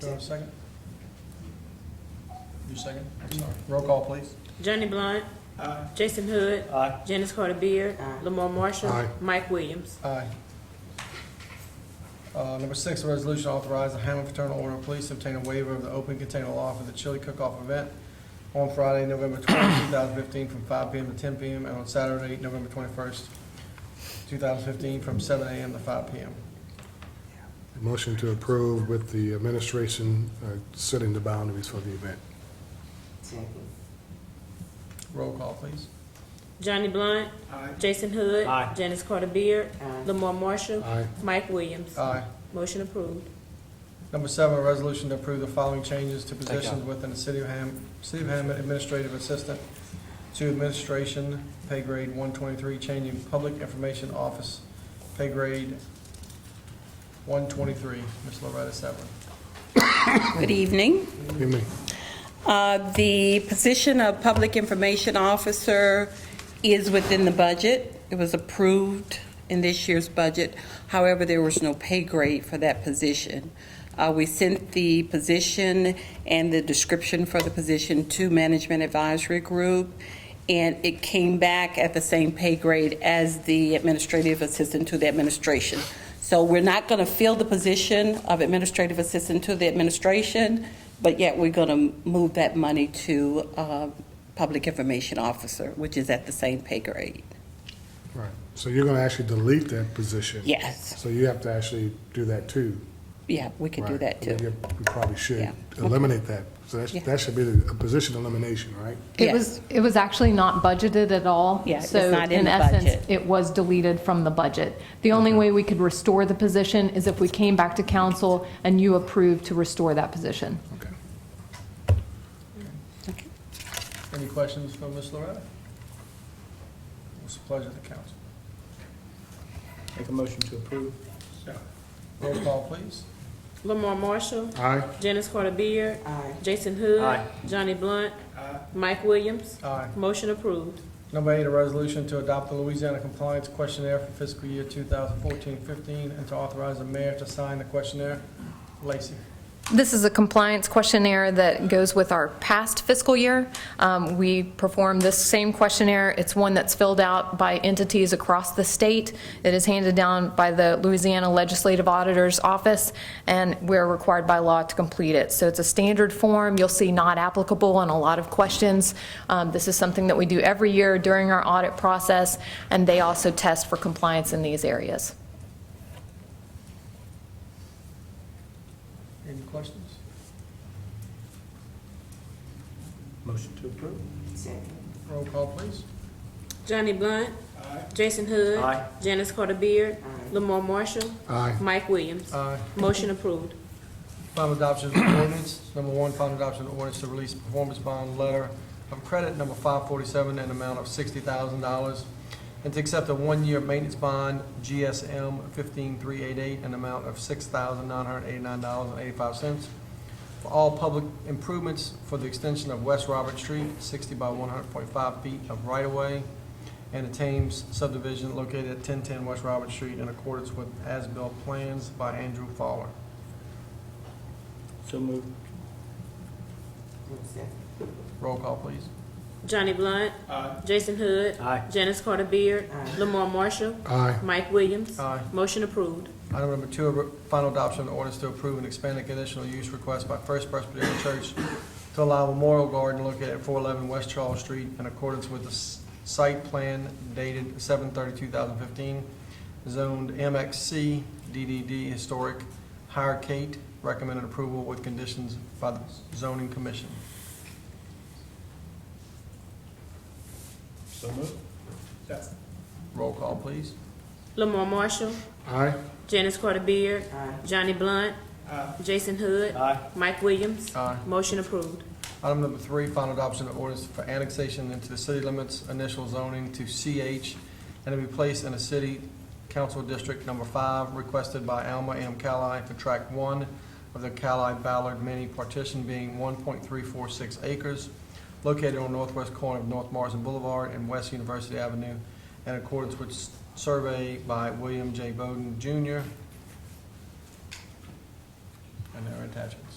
Do I have a second? Mm-hmm. You second? I'm sorry. Roll call, please. Johnny Blunt. Jason Hood. Janice Carter Beard. Lamar Marshall. Mike Williams. Aye. Uh, number six, a resolution authorizing Hammond Fraternal Order of Police to obtain a waiver of the open container law for the chili cook-off event on Friday, November twelfth, two thousand fifteen, from five PM to ten PM, and on Saturday, November twenty-first, two thousand fifteen, from seven AM to five PM. Motion to approve with the administration uh, setting the boundaries for the event. Roll call, please. Johnny Blunt. Jason Hood. Janice Carter Beard. Lamar Marshall. Aye. Mike Williams. Aye. Motion approved. Number seven, a resolution to approve the following changes to positions within the City of Ham, City of Hammond Administrative Assistant to Administration, pay grade one twenty-three, changing Public Information Office, pay grade one twenty-three. Ms. Loretta Severn. Good evening. Excuse me. Uh, The position of Public Information Officer is within the budget. It was approved in this year's budget. However, there was no pay grade for that position. Uh, We sent the position and the description for the position to Management Advisory Group, and it came back at the same pay grade as the Administrative Assistant to the Administration. So we're not going to fill the position of Administrative Assistant to the Administration, but yet we're going to move that money to uh, Public Information Officer, which is at the same pay grade. Right. So you're going to actually delete that position? Yes, So you have to actually do that too. yeah, we could do right? that I mean, too. you- You probably should Yeah. eliminate that. So that, Yeah. sh- that should be the- a position elimination, right? Yes. It was, it was actually not budgeted at all. Yeah, it was not in the So in budget. essence, it was deleted from the budget. The only way we could restore the position is if we came back to council and you approved to restore that position. Okay. Any questions for Ms. Loretta? It's a pleasure to council. Make a motion to approve. Roll call, please. Lamar Marshall. Aye. Janice Carter Beard. Jason Hood. Aye. Johnny Blunt. Mike Williams. Aye. Motion approved. Number eight, a resolution to adopt the Louisiana Compliance Questionnaire for fiscal year 2014-15 and to authorize the mayor to sign the questionnaire. Lacy. This is a compliance questionnaire that goes with our past fiscal year. Um, We perform this same questionnaire. It's one that's filled out by entities across the state. It is handed down by the Louisiana Legislative Auditor's Office, and we're required by law to complete it. So it's a standard form. You'll see not applicable on a lot of questions. Um, This is something that we do every year during our audit process, and they also test for compliance in these areas. Any questions? Motion to approve. Roll call, please. Johnny Blunt. Jason Hood. Aye. Janice Carter Beard. Lamar Marshall. Aye. Mike Williams. Aye. Motion approved. Final adoption of ordinance. Number one, final adoption of ordinance to release performance bond letter of credit number 547 in an amount of $60,000 and to accept a one-year maintenance bond GSM 15388 in an amount of $6,989.85 for all public improvements for the extension of West Robert Street, 60 by 100.5 feet of right-of-way and the Thames subdivision located at 1010 West Robert Street in accordance with as-built plans by Andrew Fowler. So moved. Roll call, please. Johnny Blunt. Jason Hood. Aye. Janice Carter Beard. Lamar Marshall. Aye. Mike Williams. Aye. Motion approved. Uh, Item number two, re- final adoption of ordinance to approve an expanded conditional use request by First Presbyterian Church to allow Memorial Garden located at 411 West Charles Street in accordance with the s- site plan dated 7/30/2015, zoned MXC DDD Historic Higher Kate, recommended approval with conditions by the zoning commission. So moved. Roll call, please. Lamar Marshall. Aye. Janice Carter Beard. Johnny Blunt. Jason Hood. Aye. Mike Williams. Aye. Motion approved. Item number three, final adoption of ordinance for annexation into the city limits, initial zoning to CH, and to be placed in a city council district number five, requested by Alma M. Cali for tract one of the Cali Ballard mini partition being one point three four six acres, located on northwest corner of North Marsden Boulevard and West University Avenue, in accordance with s- survey by William J. Bowden Jr. And their attachments.